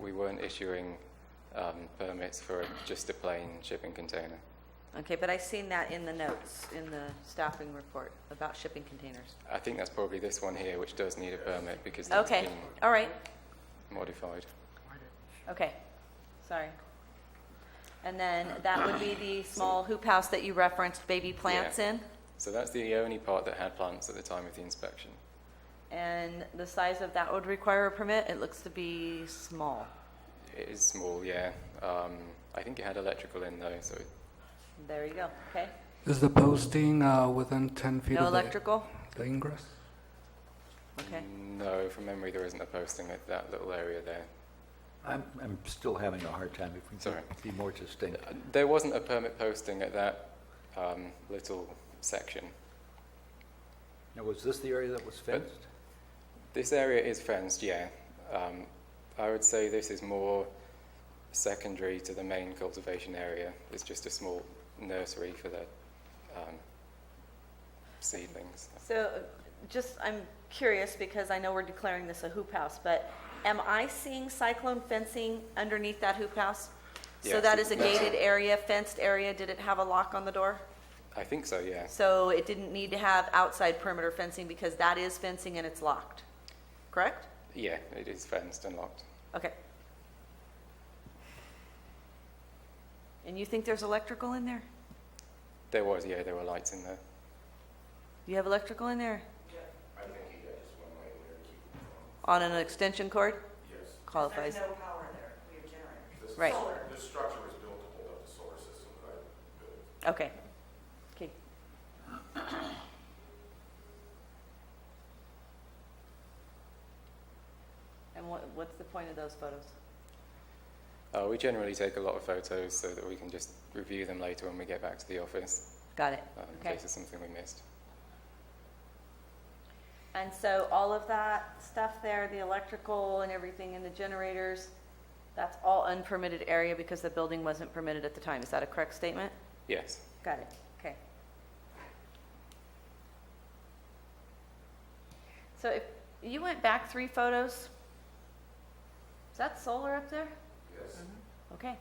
we weren't issuing um, permits for just a plain shipping container. Okay, but I seen that in the notes, in the staffing report about shipping containers. I think that's probably this one here, which does need a permit because it's Okay, all right, been modified. okay, sorry. And then that would be the small hoop house that you referenced baby plants Yeah. in? So that's the only part that had plants at the time of the inspection. And the size of that would require a permit? It looks to be small. It is small, yeah. Um, I think it had electrical in though, so There you go, okay? Is the posting uh, within 10 feet No of the- electrical? the ingress? Okay, no, from memory there isn't a posting at that little area there. I'm, I'm still having a hard time if we Sorry. can be more distinct. There wasn't a permit posting at that um, little section. Now, was this the area that was fenced? This area is fenced, yeah. Um, I would say this is more secondary to the main cultivation area. It's just a small nursery for the um, seedlings. so just, I'm curious because I know we're declaring this a hoop house, but am I seeing cyclone fencing underneath that hoop house? So Yes, that is a that's- gated area, fenced area, did it have a lock on the door? I think so, yeah. So it didn't need to have outside perimeter fencing because that is fencing and it's locked, correct? Yeah, it is fenced and locked. Okay. And you think there's electrical in there? There was, yeah, there were lights in there. You have electrical in there? I think he got just one light On an extension cord? Yes. Qualifies. There's no power there, we have generators. Right, This structure was built to hold up the solar system that I built. okay. Okay, And what, what's the point of those photos? Uh, we generally take a lot of photos so that we can just review them later when we get back to the office Got it, uh, in okay. case there's something we missed. And so all of that stuff there, the electrical and everything and the generators, that's all unpermitted area because the building wasn't permitted at the time. Is that a correct statement? Yes. Got it, okay. So if you went back three photos, is that solar up there? Yes. Mm-hmm. Okay.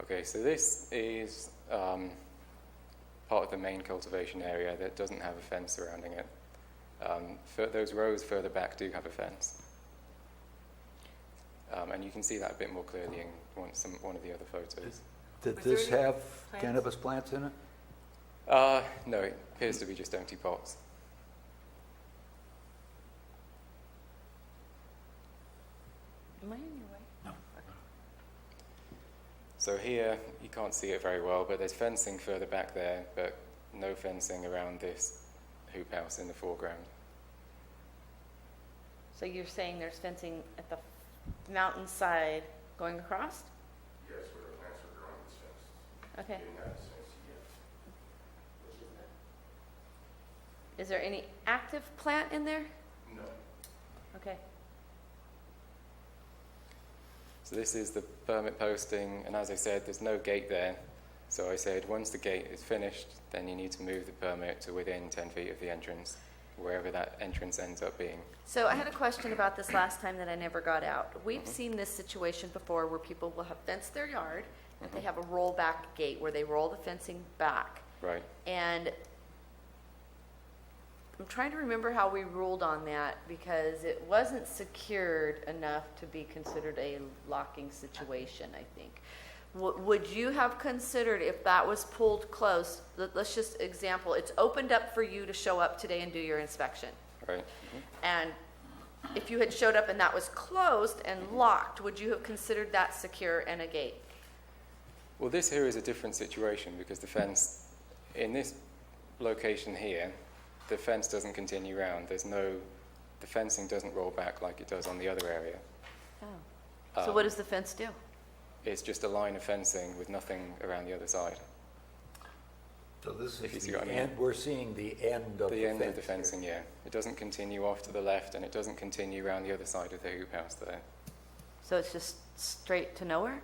Okay, so this is um, part of the main cultivation area that doesn't have a fence surrounding it. Um, fur- those rows further back do have a fence. Um, and you can see that a bit more clearly in one, some, one of the other photos. Did Was there this any have plants? cannabis plants in it? Uh, no, it appears to be just empty pots. Am I in your way? So here, you can't see it very well, but there's fencing further back there, but no fencing around this hoop house in the foreground. So you're saying there's fencing at the mountainside going across? Yes, where the plants were growing, it's fenced. Okay. Didn't have this fence yet. Is there any active plant in there? No. Okay. So this is the permit posting, and as I said, there's no gate there. So I said, once the gate is finished, then you need to move the permit to within 10 feet of the entrance, wherever that entrance ends up being. So I had a question about this last time that I never got out. We've seen this situation before where people will have fenced their yard, but they have a rollback gate where they roll the fencing back. Right. And I'm trying to remember how we ruled on that because it wasn't secured enough to be considered a locking situation, I think. W- Would you have considered if that was pulled close, let- let's just example, it's opened up for you to show up today and do your inspection. Right. And if you had showed up and that was closed and locked, would you have considered that secure and a gate? Well, this here is a different situation because the fence, in this location here, the fence doesn't continue round. There's no, the fencing doesn't roll back like it does on the other area. So Um, what does the fence do? It's just a line of fencing with nothing around the other side. So this If you is see the what I mean. end, we're seeing the end of the fence. The end of the here. fencing, yeah. It doesn't continue off to the left and it doesn't continue round the other side of the hoop house there. So it's just straight to nowhere?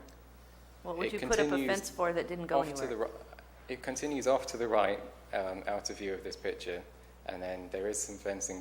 What would It you put up a continues fence for that didn't go Off to the anywhere? ri- It continues off to the right, um, out of view of this picture, and then there is some fencing